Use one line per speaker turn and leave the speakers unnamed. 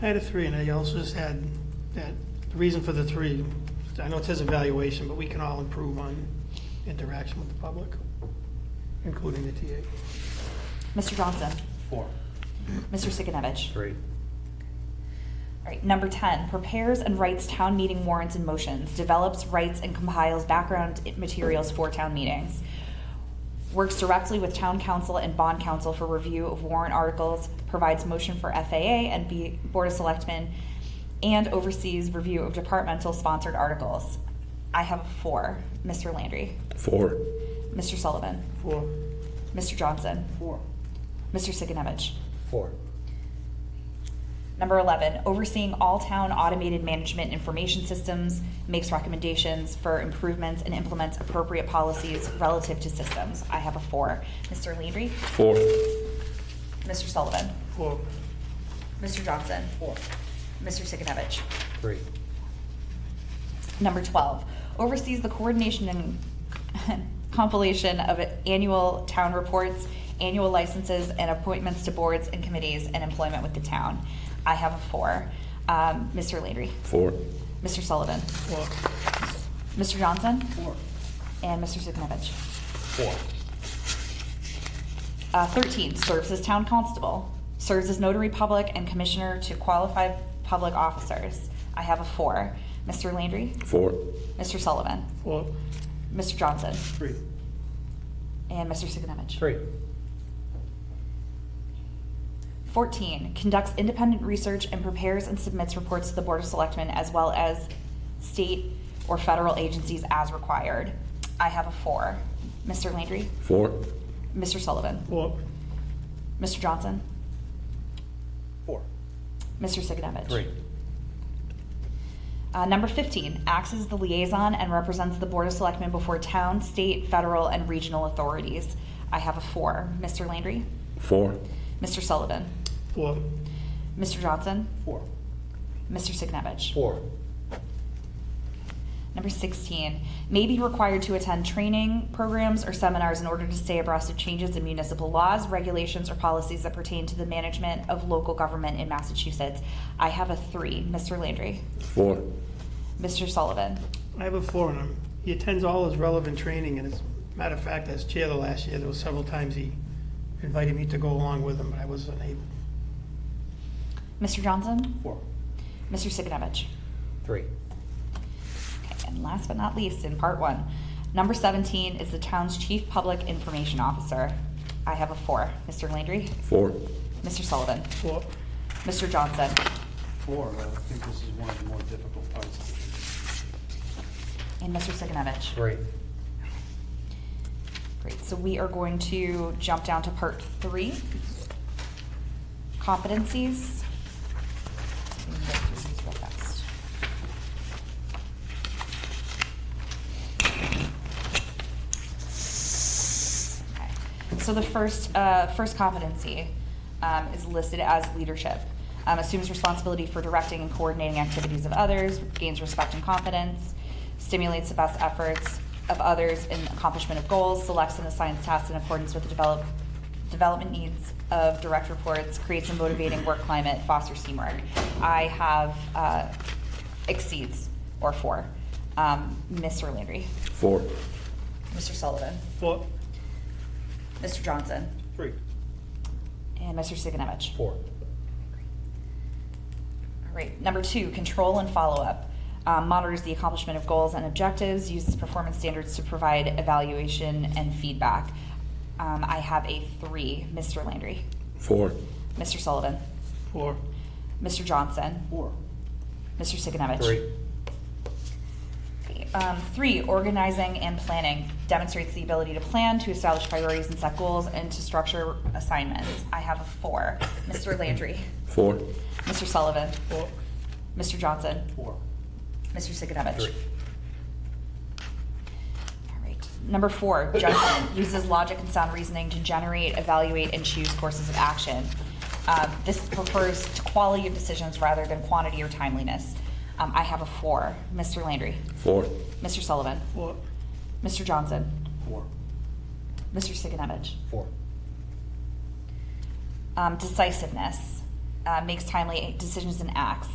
I had a three, and I also just had that, the reason for the three, I know it says evaluation, but we can all improve on interaction with the public, including the TA.
Mr. Johnson?
Four.
Mr. Sigenovich?
Three.
All right, number 10, prepares and writes town meeting warrants and motions, develops, writes, and compiles background i- materials for town meetings, works directly with town council and bond council for review of warrant articles, provides motion for FAA and B- Board of Selectmen, and oversees review of departmental sponsored articles. I have a four. Mr. Landry?
Four.
Mr. Sullivan?
Four.
Mr. Johnson?
Four.
Mr. Sigenovich?
Four.
Number 11, overseeing all town automated management information systems, makes recommendations for improvements and implements appropriate policies relative to systems. I have a four. Mr. Landry?
Four.
Mr. Sullivan?
Four.
Mr. Johnson?
Four.
Mr. Sigenovich?
Three.
Number 12, oversees the coordination and compilation of annual town reports, annual licenses, and appointments to boards and committees and employment with the town. I have a four. Um, Mr. Landry?
Four.
Mr. Sullivan?
Four.
Mr. Johnson?
Four.
And Mr. Sigenovich.
Four.
Uh, 13, serves as town constable, serves as notary public and commissioner to qualified public officers. I have a four. Mr. Landry,
Four.
Mr. Sullivan,
Four.
Mr. Johnson,
Three.
and Mr. Sigenovich.
Three.
14, conducts independent research and prepares and submits reports to the Board of Selectmen as well as state or federal agencies as required. I have a four. Mr. Landry,
Four.
Mr. Sullivan,
Four.
Mr. Johnson,
Four.
Mr. Sigenovich.
Three.
Uh, number 15, acts as the liaison and represents the Board of Selectmen before town, state, federal, and regional authorities. I have a four. Mr. Landry,
Four.
Mr. Sullivan,
Four.
Mr. Johnson,
Four.
Mr. Signevich.
Four.
Number 16, may be required to attend training programs or seminars in order to stay abreast of changes in municipal laws, regulations, or policies that pertain to the management of local government in Massachusetts. I have a three. Mr. Landry,
Four.
Mr. Sullivan,
I have a four on him. He attends all his relevant training, and as a matter of fact, as chair the last year, there was several times he invited me to go along with him, but I wasn't able.
Mr. Johnson,
Four.
Mr. Signevich.
Three.
Okay, And last but not least, in part one, number 17 is the town's chief public information officer. I have a four. Mr. Landry,
Four.
Mr. Sullivan,
Four.
Mr. Johnson,
Four. I think this is one of the more difficult parts.
and Mr. Sigenovich.
Three.
Great, so we are going to jump down to part three. Competencies. We can get through these real fast. Okay. So the first, uh, first competency um, is listed as leadership. Um, Assumes responsibility for directing and coordinating activities of others, gains respect and confidence, stimulates the best efforts of others in accomplishment of goals, selects and assigns tasks in accordance with the develop, development needs of direct reports, creates a motivating work climate, fosters teamwork. I have uh, exceeds or four. Um, Mr. Landry,
Four.
Mr. Sullivan,
Four.
Mr. Johnson,
Three.
and Mr. Sigenovich.
Four.
All right, number two, control and follow-up. Um, Monitors the accomplishment of goals and objectives, uses performance standards to provide evaluation and feedback. Um, I have a three, Mr. Landry,
Four.
Mr. Sullivan,
Four.
Mr. Johnson,
Four.
Mr. Sigenovich.
Three.
Um, three, organizing and planning demonstrates the ability to plan, to establish priorities and set goals, and to structure assignments. I have a four, Mr. Landry,
Four.
Mr. Sullivan,
Four.
Mr. Johnson,
Four.
Mr. Sigenovich.
Three.
All right. Number four, judgment uses logic and sound reasoning to generate, evaluate, and choose courses of action. Um, this refers to quality of decisions rather than quantity or timeliness. Um, I have a four. Mr. Landry,
Four.
Mr. Sullivan,
Four.
Mr. Johnson,
Four.
Mr. Sigenovich.
Four.
Um, decisiveness uh, makes timely decisions and acts.